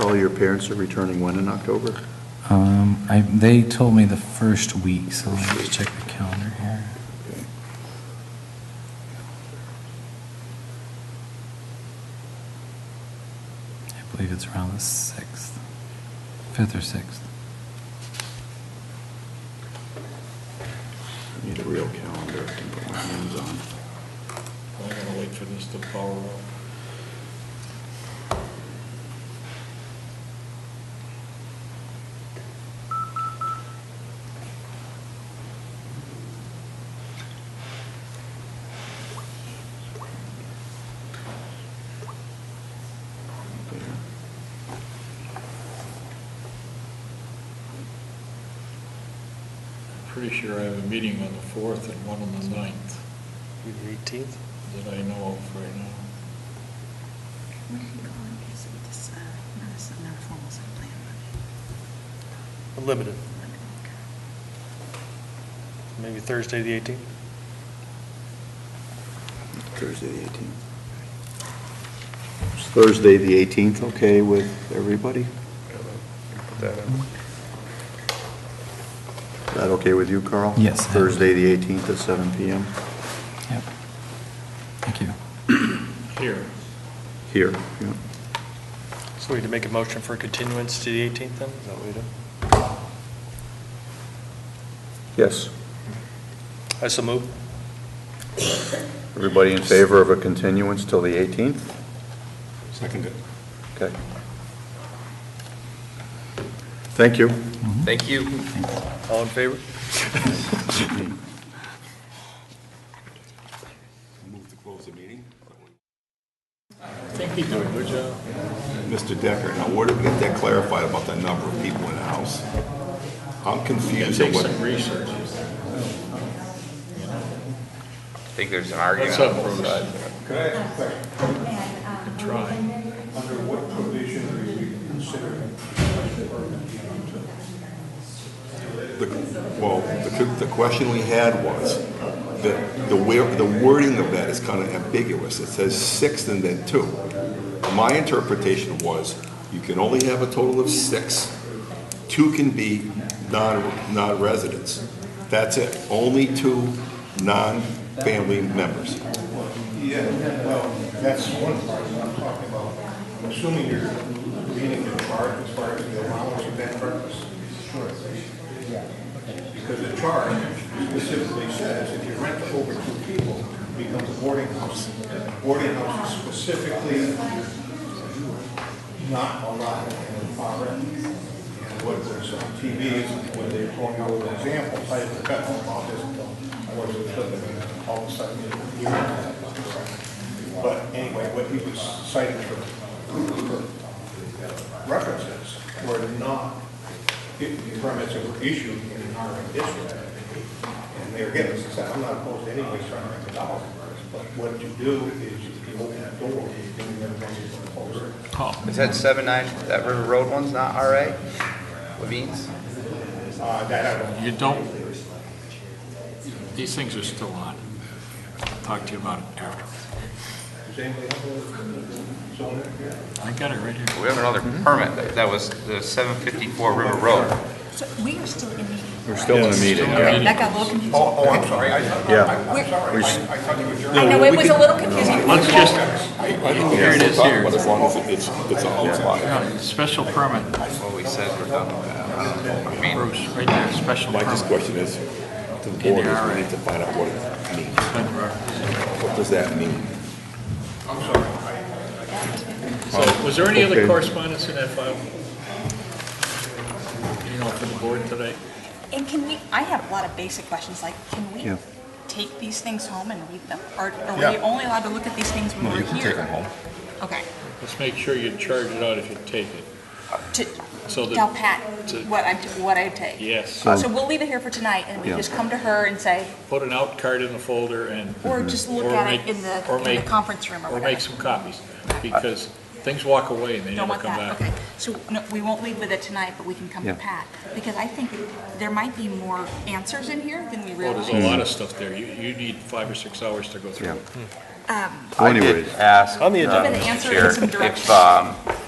All your parents are returning when in October? Um, I, they told me the first week, so let me just check the calendar here. I believe it's around the 6th, 5th or 6th. I Need a real calendar I can put my hands on. I'm gonna wait for this to power up. Pretty sure I have a meeting on the fourth and one on the ninth Eighteenth? that I know of right now. Where are you going? Is it this, uh, no, this is not a formal site plan, Limited. but, okay. Maybe Thursday, the eighteenth? Thursday, the 18th. Is Thursday, the 18th, okay with everybody? Is that okay with you, Carl? Yes. Thursday, the 18th at 7 PM Yep. Thank you. Here, here. yeah. So we need to make a motion for continuance to the eighteenth then? Is that what we do? Yes. I so move. Everybody in favor of a continuance till the 18th? Seconded. Okay. Thank you. Thank you. All in favor? I think they do a good job. Mr. Decker, now where did we get that clarified about the number of people in the house? I'm It confused on takes what, some research. I think there's an What's argument up, on both Bruce? sides. Try. the- well, the, the question we had was, that the where, the wording of that is kind of ambiguous. It says six and then two. My interpretation was, you can only have a total of six. Two can be non, non-residents. That's it. Only two non-family members. Yeah, well, that's one part that I'm talking about. Assuming you're reading the chart as far as the allowance of that purpose. Sure. Because the chart specifically says if you rent to over two people, it becomes a boarding house. Boarding house is specifically not allowed in the far end. And what was on TV, when they were going over the examples, I had cut them off this, I wasn't flipping, and all of a sudden, you know. But anyway, what he was citing for, for references were not permits that were issued in an R M district. And they're getting, as I said, I'm not opposed to anybody trying to rent it out, but what you do is you open that door, you bring them in, you close it. Oh, Is that seven nine, that River Road one's not RA? Levine's? Uh, that I don't, You don't, these things are still on. Talk to you about it after. does anybody have a zoning here? I got it right here. We have another permit, that- that was the seven fifty-four River Road. So we are still in meeting. We're still in a meeting. yeah. That got a little confusing. Oh, I'm sorry. Yeah. We're- We s- I know, it was a little confusing. Let's just, here it is here. But as long as it- it's, it's outside. yeah, special permit, What we said we're done with that. I don't know. I mean, Bruce, right there, special My just permit. question is, to the In the board, is IRA. we need to find out what it means. What does that mean? So was there any other Okay. correspondence in that file? You know, for the board today? And can we, I have a lot of basic questions, like, can we Yeah. take these things home and read them? Or are we Yeah. only allowed to look at these things when No, we're you can take them here? home. Okay. Let's make sure you charge it out if you take it. To So tell that, Pat to- what I, what I take. yes, So we'll leave it here for tonight, and we Yeah. just come to her and say, put an out card in the folder and Mm-hmm. or just look Or at it make- in the, or in the make- conference room or Or whatever. make some copies, because things walk away and they Don't never want come that, back. okay. So, no, we won't leave with it tonight, but we can come to Yeah. Pat, because I think there might be more answers in here than we Oh, realize. there's a lot of stuff there. You, you need five or six hours to go through. Yeah. it. Well, I did Anyways, ask, On the uh, agenda. Give an answer and Chair, some if, direction. um,